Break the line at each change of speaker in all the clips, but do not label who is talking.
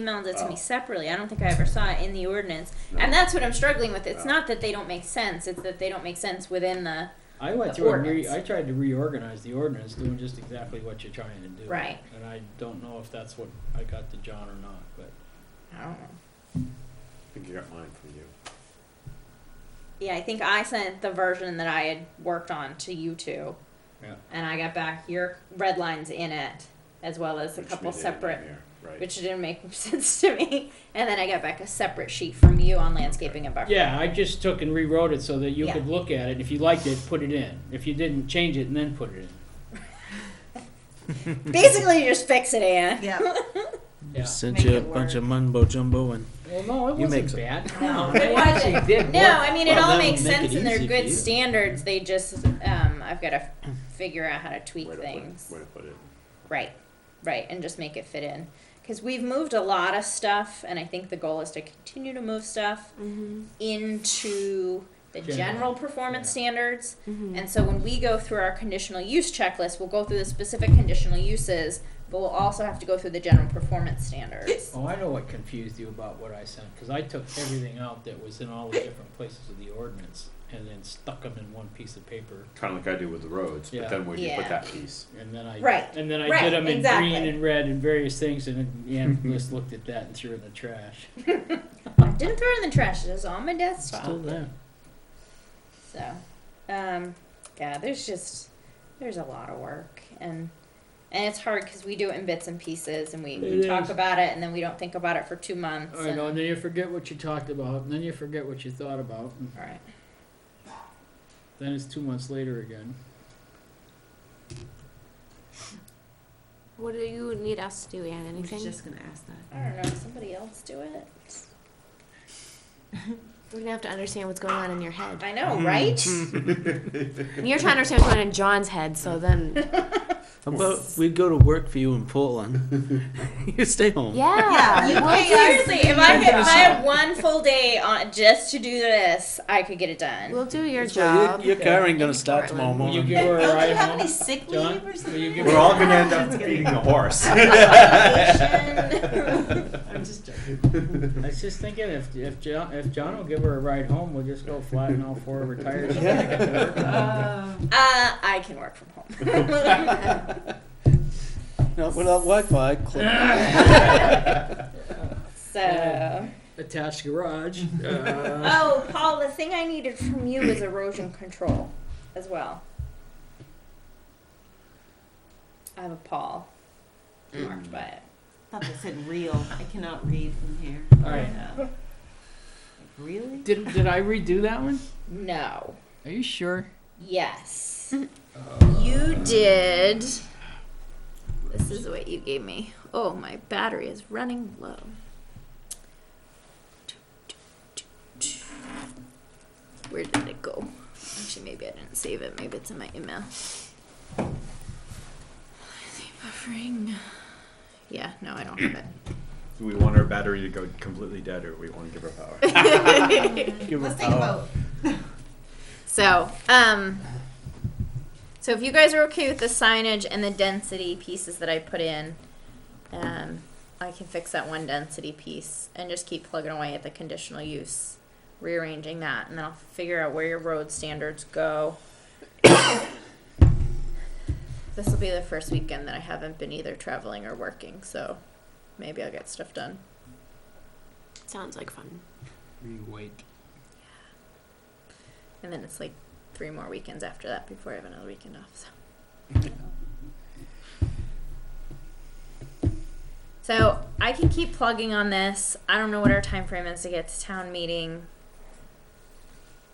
emailed it to
Oh.
me separately. I don't think I ever saw it in the ordinance.
No.
And that's what I'm struggling with. It's
No.
not that they don't make sense, it's that they don't make sense within the
I went
The
through and re,
ordinance.
I tried to reorganize the ordinance, doing just exactly what you're trying to do.
Right.
And I don't know if that's what I got to John or not, but
I don't know.
think you got mine from you.
Yeah, I think I sent the version that I had worked on to you two.
Yeah.
And I got back your red lines in it as well as a
which we
couple
did in
separate
there, Right.
which didn't make sense to me. And then I got back a separate sheet from you on landscaping and buffer.
yeah, I just took and rewrote it so that you could
Yeah.
look at it. and If you liked it, put it in. If you didn't, change it and then put it in.
Basically you just fix it, Anna.
Yeah.
Yeah.
Sent
Make
you a
it
bunch of mumbo jumbo and
Well, no, it
You make
wasn't
some-
bad.
No,
They
it wasn't.
actually did
No,
work.
I mean it
Well,
all
that'll
makes
make
sense
it
and they're
easy for
good
you.
standards. They just um, I've got to figure out how to tweak
Way to put-
things.
Way to put it.
Right, right, and just make it fit in. Because we've moved a lot of stuff, and I think the goal is to continue to move stuff
Mm-hmm.
into the
General,
general, performance
yeah. Mm-hmm.
standards.
Mm-hmm.
And so when we go through our conditional use checklist, we'll go through the specific conditional uses, but we'll also have to go through the general performance standards.
Oh, I know what confused you about what I sent, because I took everything out that was in all the different places of the ordinance and then stuck them in one piece of paper.
Kind of like I do with the roads,
Yeah.
but then where do you
Yeah.
put that piece?
And then I
Right,
and then I
right,
did them in green
exactly.
and red and various things, and then Ann just looked at that and threw it in the trash.
I didn't throw it in the trash, it was on my desktop.
still there.
So, um, yeah, there's just there's a lot of work, and and it's hard because we do it in bits and pieces, and we, we
It
talk
is.
about it, and then we don't think about it for two months.
All right,
and-
and then you forget what you talked about, and then you forget what you thought about, and
all right.
then it's two months later again.
What do you need us to do, Anne?
I was
Anything?
just gonna ask that.
I don't know. Does somebody else do it?
We're gonna have to understand what's going on in your head.
I know,
Hmm.
right?
And you're trying to understand what's going on in John's head, so then
How about we go to work for you in Portland? you stay home.
yeah,
You
we'll-
pay us.
Seriously, if I could, if I had one full day on just to do this, I could get it done.
we'll do your
That's why your-
job.
Your car ain't gonna
in
start tomorrow
Will
Portland.
you
morning.
give her a
Don't you
ride
have any
home?
sick
John,
leave or
will you
something?
give
We're all gonna end up
Just kidding.
feeding the horse.
I'm just joking.
I was just thinking if if John if John will give her a ride home, we'll just go flatten all four of her tires.
Uh,
uh, I can work from home.
No, without Wi-Fi. click.
So,
Attached garage. Uh,
oh, Paul, the thing I needed from you was erosion control, as well. I have a Paul marked by it.
thought that said real. I cannot read from here.
All right.
Uh, like, Really?
did did I redo that one?
No.
Are you sure?
Yes. you did. This is what you gave me. Oh, my battery is running low. Where did it go? Actually, maybe I didn't save it. Maybe it's in my email. Buffering. Yeah, no, I don't have it.
Do we want our battery to go completely dead, or we want to give her power?
Give her
Let's take a
power.
vote.
So, um, so if you guys are okay with the signage and the density pieces that I put in, um, I can fix that one density piece and just keep plugging away at the conditional use, rearranging that, and then I'll figure out where your road standards go. this will be the first weekend that I haven't been either traveling or working, so maybe I'll get stuff done.
Sounds like fun.
Rewake.
And then it's like three more weekends after that before I have another weekend off. So. So I can keep plugging on this. I don't know what our time frame is to get to town meeting.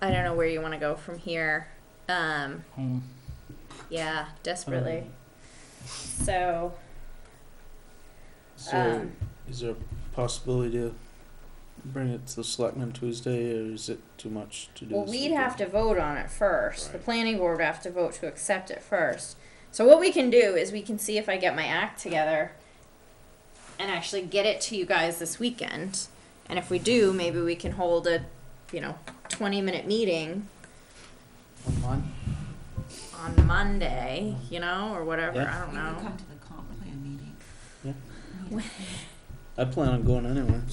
I don't know where you want to go from here. Um,
Home.
yeah, desperately. So um,
So, is there a possibility to bring it to the selectmen Tuesday, or is it too much to do?
Well,
this
we'd
weekend?
have to vote on it first. The
Right.
planning board would have to vote to accept it first. So what we can do is we can see if I get my act together and actually get it to you guys this weekend. And if we do, maybe we can hold a, you know, twenty minute meeting
One month.
on Monday, you know, or whatever, I
Yeah.
don't
You can
know.
come to the comp plan meeting.
Yeah.
Yeah.
I plan on going anyway.